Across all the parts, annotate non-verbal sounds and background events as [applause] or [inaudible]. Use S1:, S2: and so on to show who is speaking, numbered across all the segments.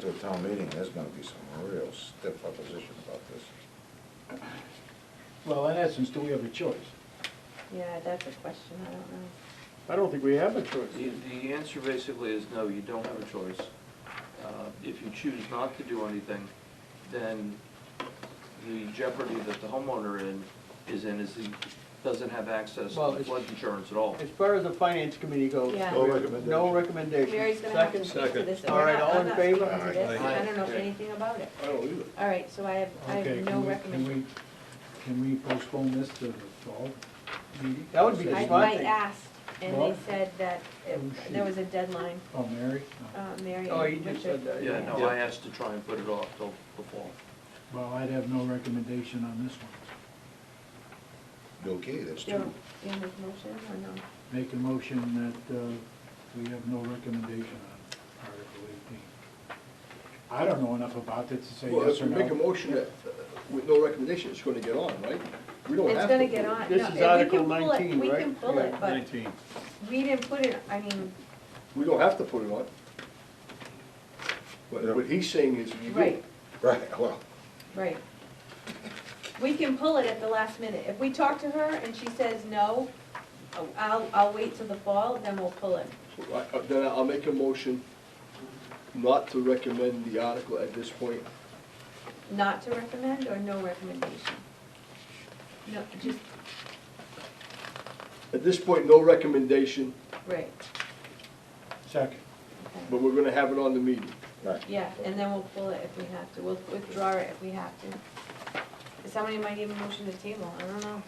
S1: to a town meeting, there's gonna be some real stiff opposition about this.
S2: Well, in essence, do we have a choice?
S3: Yeah, that's a question, I don't know.
S2: I don't think we have a choice.
S4: The, the answer basically is no, you don't have a choice. Uh, If you choose not to do anything, then the jeopardy that the homeowner in, is in is he doesn't have access
S2: Well,
S4: to
S2: it's-
S4: flood insurance at all.
S2: As far as the finance committee goes,
S3: Yeah.
S1: No recommendation.
S2: no recommendation.
S3: Mary's gonna have to
S2: Second?
S3: speak to this.
S2: All
S3: We're
S2: right,
S3: not-
S2: all
S3: I'm
S2: in
S3: not
S2: favor?
S3: speaking to this.
S1: Aye.
S3: I don't know
S4: Aye.
S3: anything about it.
S5: I don't either.
S3: All right, so I have, I
S6: Okay,
S3: have
S6: can
S3: no
S6: we-
S3: recommendation.
S6: Can we, can we postpone this to the fall meeting?
S2: That would be
S3: I,
S2: It's
S3: I
S2: fine.
S3: asked, and they
S6: Well-
S3: said that it-
S6: Oh, shoot.
S3: there was a deadline,
S6: Oh, Mary? No.
S3: uh, Mary
S2: Oh, you
S3: and
S2: just
S3: Richard.
S2: said that.
S4: Yeah, no, I asked to try and put it off till the fall.
S6: Well, I'd have no recommendation on this one.
S1: Okay, that's
S3: Do you have
S1: true.
S3: do you have a motion or no?
S6: Make a motion that uh, we have no recommendation on Article eighteen. I don't know enough about it to say
S5: Well,
S6: yes
S5: if
S6: or
S5: we
S6: no.
S5: make a motion that, uh, with no recommendation, it's gonna get on, right? We don't have to.
S3: It's gonna get on.
S2: This
S3: No,
S2: is
S3: we can
S2: Article
S3: pull it.
S2: 19,
S3: We
S2: right?
S3: can pull it,
S2: Yeah,
S3: but we didn't put it, I mean,
S5: We don't have to put it on. What, what he's saying is you do.
S3: right,
S1: Right, [laughs] well,
S3: right. We can pull it at the last minute. If we talk to her and she says no, oh, I'll, I'll wait till the fall, then we'll pull it.
S5: So I- uh, Then I'll make a motion not to recommend the article at this point.
S3: Not to recommend or no recommendation? No, just,
S5: At this point, no recommendation,
S3: right,
S6: Second.
S3: okay.
S5: but we're gonna have it on the meeting.
S1: right.
S3: Yeah, and then we'll pull it if we have to, we'll withdraw it if we have to. Somebody might even motion to table, I don't know.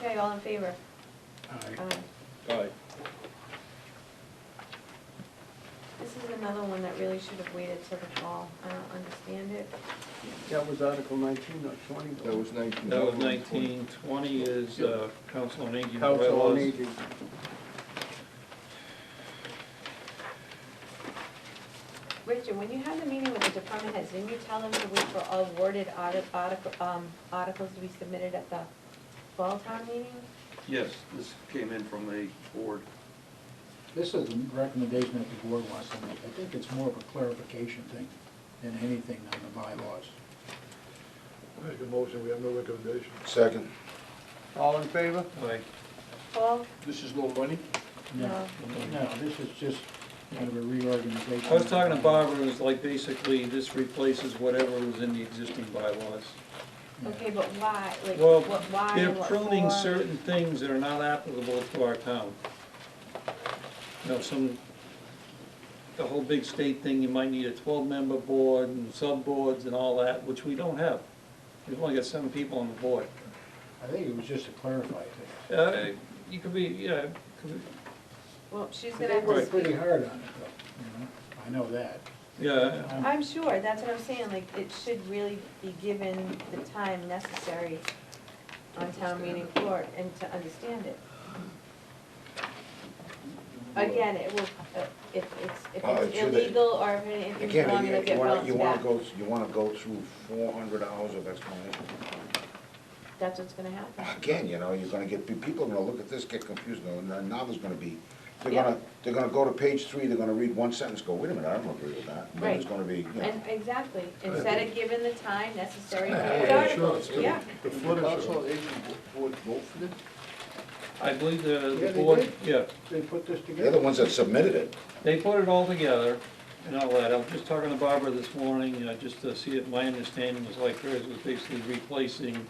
S3: Okay, all in favor?
S6: Aye.
S3: Aye.
S5: All right.
S3: This is another one that really should have waited till the fall, I don't understand it.
S2: That was Article nineteen, not twenty. though.
S5: That was nineteen.
S7: That was nineteen, twenty is uh, council on aging
S2: Council on
S7: bylaws.
S2: Aging.
S3: Richard, when you have the meeting with the department heads, didn't you tell them to wait for all worded audit, article, um, articles to be submitted at the fall town meeting?
S4: Yes, this came in from a board.
S6: This is a recommendation that the board wants to make. I think it's more of a clarification thing than anything on the bylaws.
S8: Make a motion, we have no recommendation.
S1: Second,
S2: All in favor?
S7: Like,
S3: Paul?
S5: This is no money?
S3: No.
S6: No, this is just kind of a reorganization.
S7: I was talking to Barbara, it was like basically this replaces whatever was in the existing bylaws.
S6: Yeah.
S3: Okay, but why, like,
S7: Well,
S3: what, why,
S7: they're
S3: what
S7: pruning
S3: for?
S7: certain things that are not applicable to our town. You know, some, the whole big state thing, you might need a twelve-member board and sub-boards and all that, which we don't have. We've only got seven people on the board.
S6: I think it was just to clarify things.
S7: Uh, You could be, yeah, could be-
S3: Well, she's
S6: They
S3: gonna have to
S6: worked
S3: speak.
S6: pretty hard on it, though, you know, I know that.
S7: yeah,
S3: I'm sure, that's what I'm saying, like, it should really be given the time necessary on town meeting floor and to understand it. Again, it will, uh, if it's, if
S1: Uh, it
S3: it's
S1: should-
S3: illegal or if anything's wrong, it'll
S1: again, you
S3: get
S1: wanna, you
S3: bounced
S1: wanna
S3: back.
S1: go, you wanna go through four hundred hours of explanation.
S3: That's what's gonna happen.
S1: Again, you know, you're gonna get, pe- people are gonna look at this, get confused, and then now there's gonna be, they're
S3: Yeah.
S1: gonna, they're gonna go to page three, they're gonna read one sentence, go, wait a minute, I don't agree with that. And then it's
S3: Right.
S1: gonna be, you know,
S3: And, exactly, instead of giving the time
S1: [laughs]
S3: necessary for
S8: Yeah,
S3: the
S8: yeah,
S3: articles,
S8: sure, it's
S3: yeah.
S8: The
S5: Did
S8: flood
S5: the council
S8: insurance.
S5: on aging board vote for this?
S7: I believe the-
S2: Yeah,
S7: the
S2: they
S7: board,
S2: did.
S7: yeah,
S2: They put this together.
S1: they're the ones that submitted it.
S7: they put it all together and all that. I was just talking to Barbara this morning, uh, just to see if my understanding was like hers, was basically replacing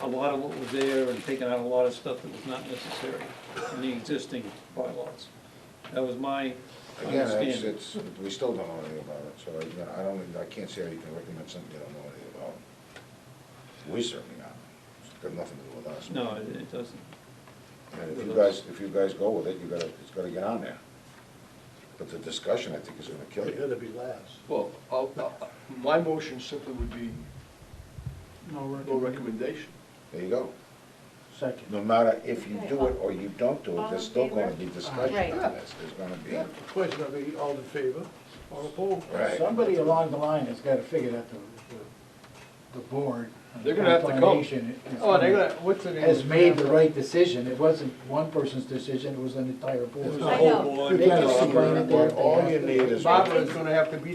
S7: a lot of what was there and taking out a lot of stuff that was not necessary in the existing bylaws. That was my
S1: Again, it's,
S7: understanding.
S1: it's, we still don't know anything about it, so I, you know, I don't, I can't say how you can recommend something you don't know anything about. We certainly not, it's got nothing to do with us.
S7: No, it it doesn't.
S1: And if you guys, if you guys go with it, you gotta, it's gotta get on there. But the discussion, I think, is gonna kill
S8: It
S1: you.
S8: had to be last.
S5: Well, I'll, I'll- my motion simply would be
S6: No
S5: no recommendation.
S1: There you go.
S6: Second.
S1: No matter if you do it or you don't do it, there's still gonna be
S3: Right.
S1: discussion on this, there's gonna be.
S8: Question, I mean, all in favor, all opposed?
S1: Right.
S6: Somebody along the line has gotta figure that the, the- the board. uh,
S5: They're gonna have to come.
S6: combination is
S2: Oh, they're gonna, what's the name?
S6: Has made the right decision, it wasn't one person's decision, it was an entire
S7: It was
S6: board.
S7: the
S3: I
S7: whole
S3: know.
S7: board.
S6: They can't explain it, they have to
S1: All you
S6: ask.
S1: need is.
S2: Barbara's gonna have to be